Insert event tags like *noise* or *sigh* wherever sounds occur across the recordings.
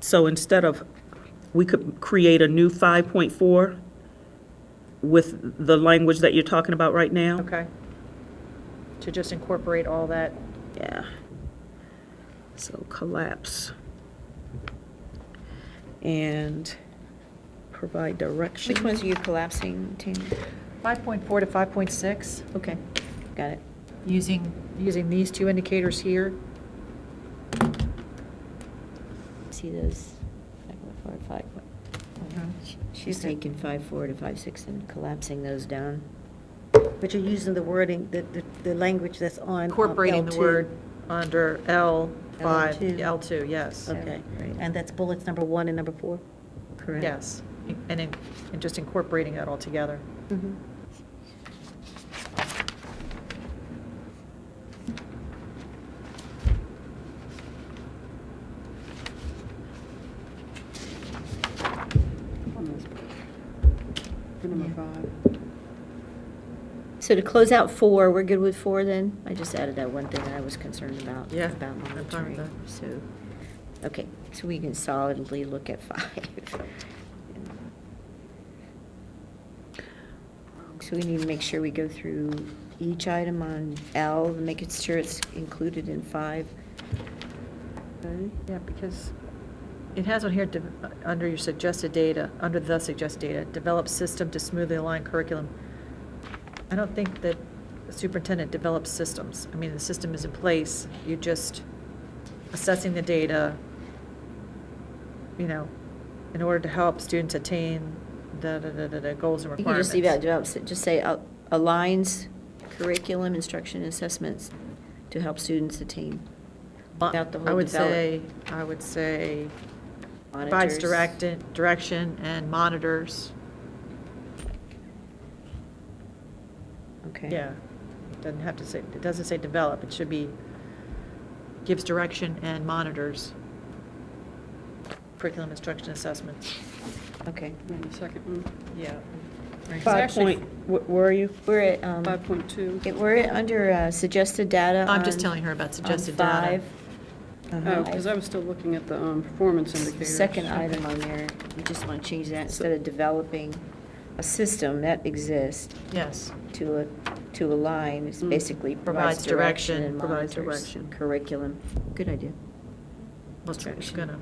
So instead of, we could create a new 5.4 with the language that you're talking about right now? Okay. To just incorporate all that. Yeah. So collapse. And provide direction. Which ones are you collapsing, Tammy? 5.4 to 5.6, Okay, got it. using, using these two indicators here. See those, five point four, five point. Mhm. She- She's taking five four to five six and collapsing those down. But you're using the wording, the, the, the language that's on. um, Incorporating the L2. word under L5, L2. L2, yes, Okay, Right. and that's bullets number one and number four? Correct. yes. And, in- and just incorporating it all together. Mhm. number Yeah. five. So to close out four, we're good with four then? I just added that one thing that I was concerned about. Yeah, About I'm fine with monitoring, that. so, okay, so we can solidly look at five. *laughs* So we need to make sure we go through each item on L, and make it sure it's included in five. Okay. Yeah, because it has on here, de- under your suggested data, under the suggested data, develop system to smoothly align curriculum. I don't think that the superintendent develops systems. I mean, the system is in place, you're just assessing the data, you know, in order to help students attain the, the, the, the- the goals and You can requirements. just leave out, develops, just say uh, aligns curriculum, instruction, and assessments to help students attain. without the I whole would develop. say, I would say, provides Monitors. direct, direction and monitors. Okay. Yeah, doesn't have to say, it doesn't say develop, it should be gives direction and monitors curriculum instruction assessments. Okay. And the second mm. one, Yeah. Five point, wh- where are you? We're at, um, five point two. it- we're at under uh, suggested data I'm just on- telling her about on suggested data. five. Uh-huh. Oh, because I was still looking at the um, performance indicators. Second item on there, we just want to change that, instead of developing a system that exists Yes, to, a- to align, it's Mm. basically Provides provides direction direction, and provides monitors direction. curriculum. Good idea. well, it's- it's gonna,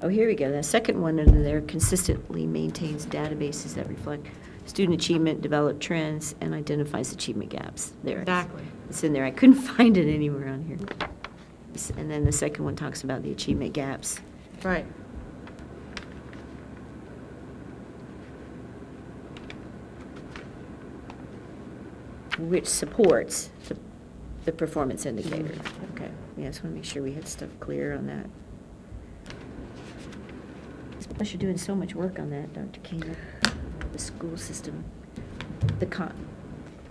Oh, here we go. The second one under there consistently maintains databases that reflect student achievement, develop trends, and identifies achievement gaps. There it is. exactly. It's in there. I couldn't *laughs* find it anywhere on here. S- And then the second one talks about the achievement gaps. Right, which supports the, the performance indicator. Mm. Okay, yeah, just want to make sure we had stuff clear on that. Plus, you're doing so much work on that, Dr. King, the school system, the con,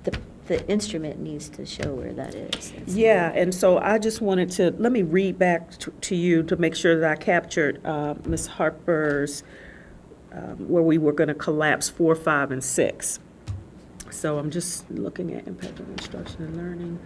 the, the instrument needs to show where that is. That's- Yeah, and so I just wanted to, let me read back t- to you to make sure that I captured uh, Ms. Harper's, um, where we were going to collapse four, five, and six. So I'm just looking at impact on instruction and learning,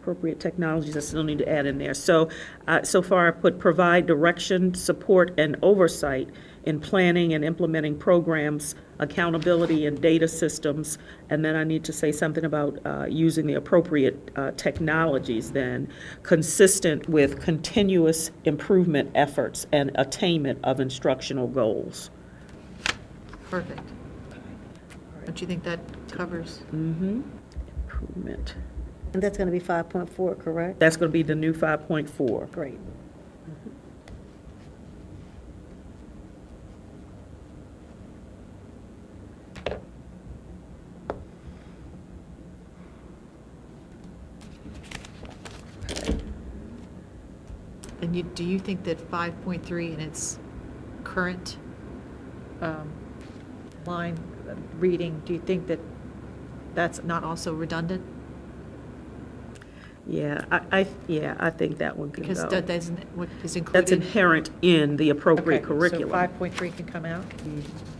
appropriate technologies, I still need to add in there. So, uh, so far I put provide direction, support, and oversight in planning and implementing programs, accountability and data systems. And then I need to say something about, uh, using the appropriate, uh, technologies then, consistent with continuous improvement efforts and attainment of instructional goals. perfect. Don't you think that covers? Mm-hmm, improvement. And that's going to be 5.4, correct? That's going to be the new 5.4. Great. And you, do you think that 5.3 in its current um, line uh, reading, do you think that that's not also redundant? Yeah, I, I, yeah, I think that one can Because go. that isn't, what is included? That's inherent in the appropriate Okay, curriculum. So 5.3 can come out? Mhm.